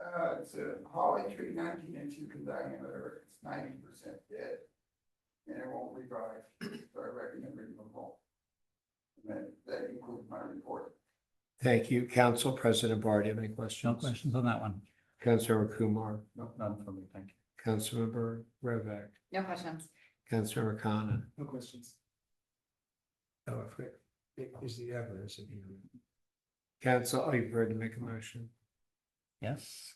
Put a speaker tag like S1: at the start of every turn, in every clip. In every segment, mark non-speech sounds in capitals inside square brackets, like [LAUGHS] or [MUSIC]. S1: Uh, it's a holly tree, nineteen inches in diameter, it's ninety percent dead. And it won't revive, so I recommend removal. And that, that includes my report.
S2: Thank you, Council President Barr. Do you have any
S3: No
S2: questions?
S3: questions on that one?
S2: Councilmember Kumar,
S3: No, None from me, thank you.
S2: Councilmember Rovak,
S4: No questions.
S2: Councilmember Khanna.
S5: No questions.
S2: Oh, I forget. It is the evidence of you. Council, oh, are you ready to make a motion?
S3: Yes.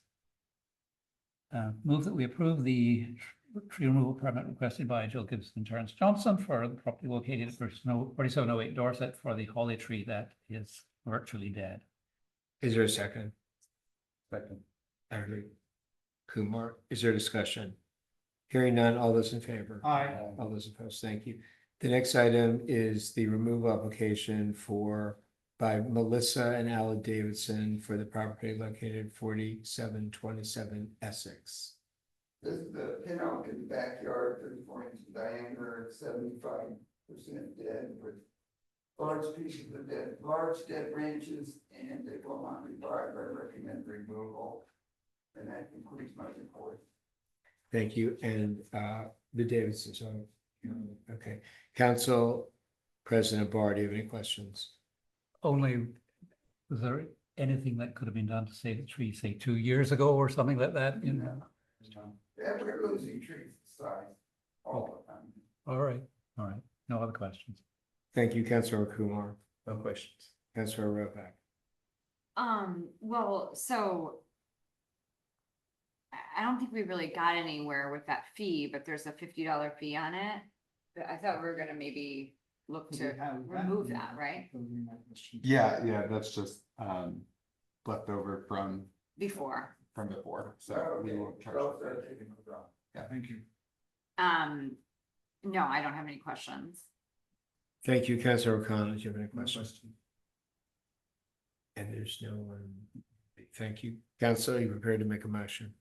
S3: Uh, move that we approve the tr- tree removal permit requested by Jill Gibson and Terrence Johnson for the property located at forty-seven oh eight Dorset for the holly tree that is virtually dead.
S2: Is there a second?
S3: Second.
S2: I agree. Kumar, is there discussion? Hearing none, all those in favor?
S5: Aye.
S2: All those opposed, thank you. The next item is the removal application for, by Melissa and Alan Davidson for the property located forty-seven twenty-seven Essex.
S1: This is the pinout in the backyard, thirty-four inch diameter, seventy-five percent dead with large pieces of dead, large dead branches, and it will not revive, I recommend removal. And that concludes my report.
S2: Thank you, and uh, the Davidsons, so, okay. Council President Barr, do you have any questions?
S3: Only, was there anything that could have been done to save the tree, say, two years ago or something like that? You know?
S1: Yeah, we're losing trees size all the time.
S3: All right, all right. No other questions?
S2: Thank you, Councilor Kumar,
S3: No questions.
S2: Councilor Rovak.
S4: Um, well, so. I, I don't think we really got anywhere with that fee, but there's a fifty dollar fee on it. But I thought we were gonna maybe look to remove that, right?
S6: Yeah, yeah, that's just um left over from
S4: Before,
S6: from before, so
S1: So,
S6: we
S1: okay,
S6: will charge.
S1: so
S6: that.
S1: they're taking it down.
S6: Yeah.
S5: Thank you.
S4: um, no, I don't have any questions.
S2: Thank you, Councilor O'Connor, do you have any
S5: No
S2: questions?
S5: questions.
S2: And there's no one, thank you. Council, you prepared to make a motion?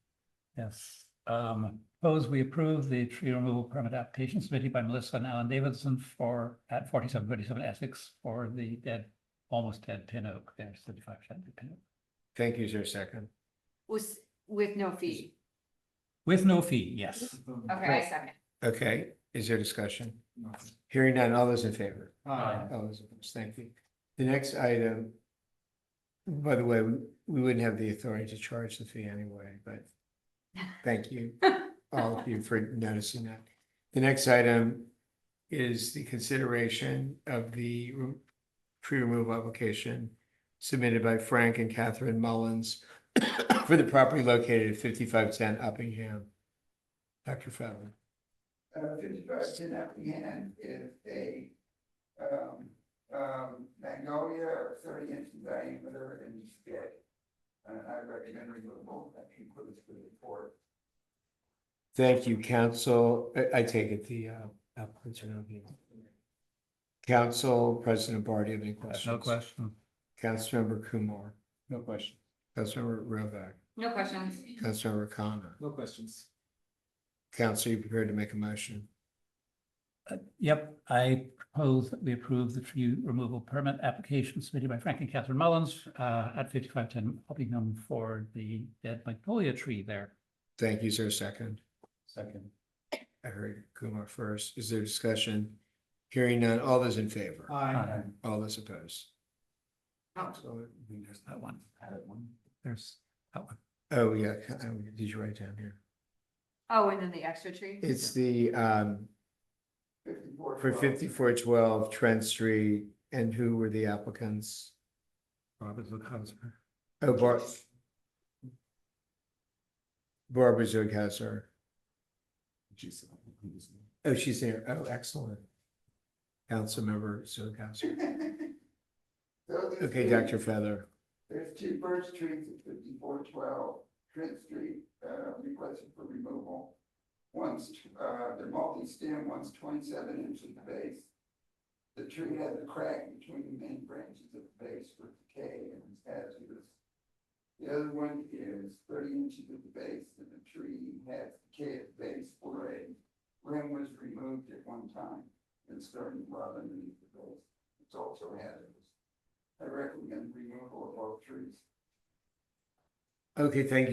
S3: Yes, um, suppose we approve the tree removal permit application submitted by Melissa and Alan Davidson for, at forty-seven thirty-seven Essex for the dead, almost dead pin oak, there's thirty-five percent pin oak.
S2: Thank you, is there a second?
S4: Was, with no fee.
S3: With no fee, yes.
S4: Okay, I second.
S2: Okay, is there discussion?
S5: No.
S2: Hearing none, all those in favor?
S5: Aye.
S2: All those opposed, thank you. The next item, by the way, we we wouldn't have the authority to charge the fee anyway, but thank you, all of you for noticing that. The next item is the consideration of the re- tree removal application submitted by Frank and Catherine Mullins [COUGHS] for the property located at fifty-five ten Uppingham. Dr. Fetterman.
S1: Uh, fifty-five ten Effingham is a, um, um, magnolia, thirty inch in diameter and it's dead. And I recommend removal, that includes the report.
S2: Thank you, council. I, I take it the, uh, applicants are not here. Council President Barr, do you have any questions?
S3: No question.
S2: Councilmember Kumar,
S5: No question.
S2: Councilmember Rovak,
S4: No questions.
S2: Councilmember Khanna.
S5: No questions.
S2: Council, you prepared to make a motion?
S3: Uh, Yep, I propose that we approve the tree removal permit application submitted by Frank and Catherine Mullins uh, at fifty-five ten Uppingham for the dead magnolia tree there.
S2: Thank you. Is there a second?
S3: Second.
S2: I heard Kumar first. Is there discussion? Hearing none. All those in favor?
S5: Aye.
S2: All those opposed?
S4: Oh.
S2: So,
S3: There's that one. There's that one.
S2: Oh, yeah. I- Did you write down here?
S4: Oh, and then the extra tree?
S2: It's the, um,
S1: Fifty-four.
S2: for
S1: [LAUGHS]
S2: fifty-four twelve Trent Street and who were the applicants?
S3: Robert Lukasper.
S2: Oh, Bar- Barbara Zug has her.
S6: Jeez.
S2: Oh, she's there. Oh, excellent. Councilmember Zug has her. Okay, Dr. Feather.
S1: There's two birch trees at fifty-four twelve Trent Street, uh, requested for removal. One's, tw- uh, they're multi-stem, one's twenty-seven inches in the base. The tree has a crack between the main branches of the base for decay and is hazardous. The other one is thirty inches at the base and the tree has decay at the base where a rim was removed at one time and starting to rot underneath the base. It's also hazardous. I recommend removal of all trees.
S2: Okay, thank you.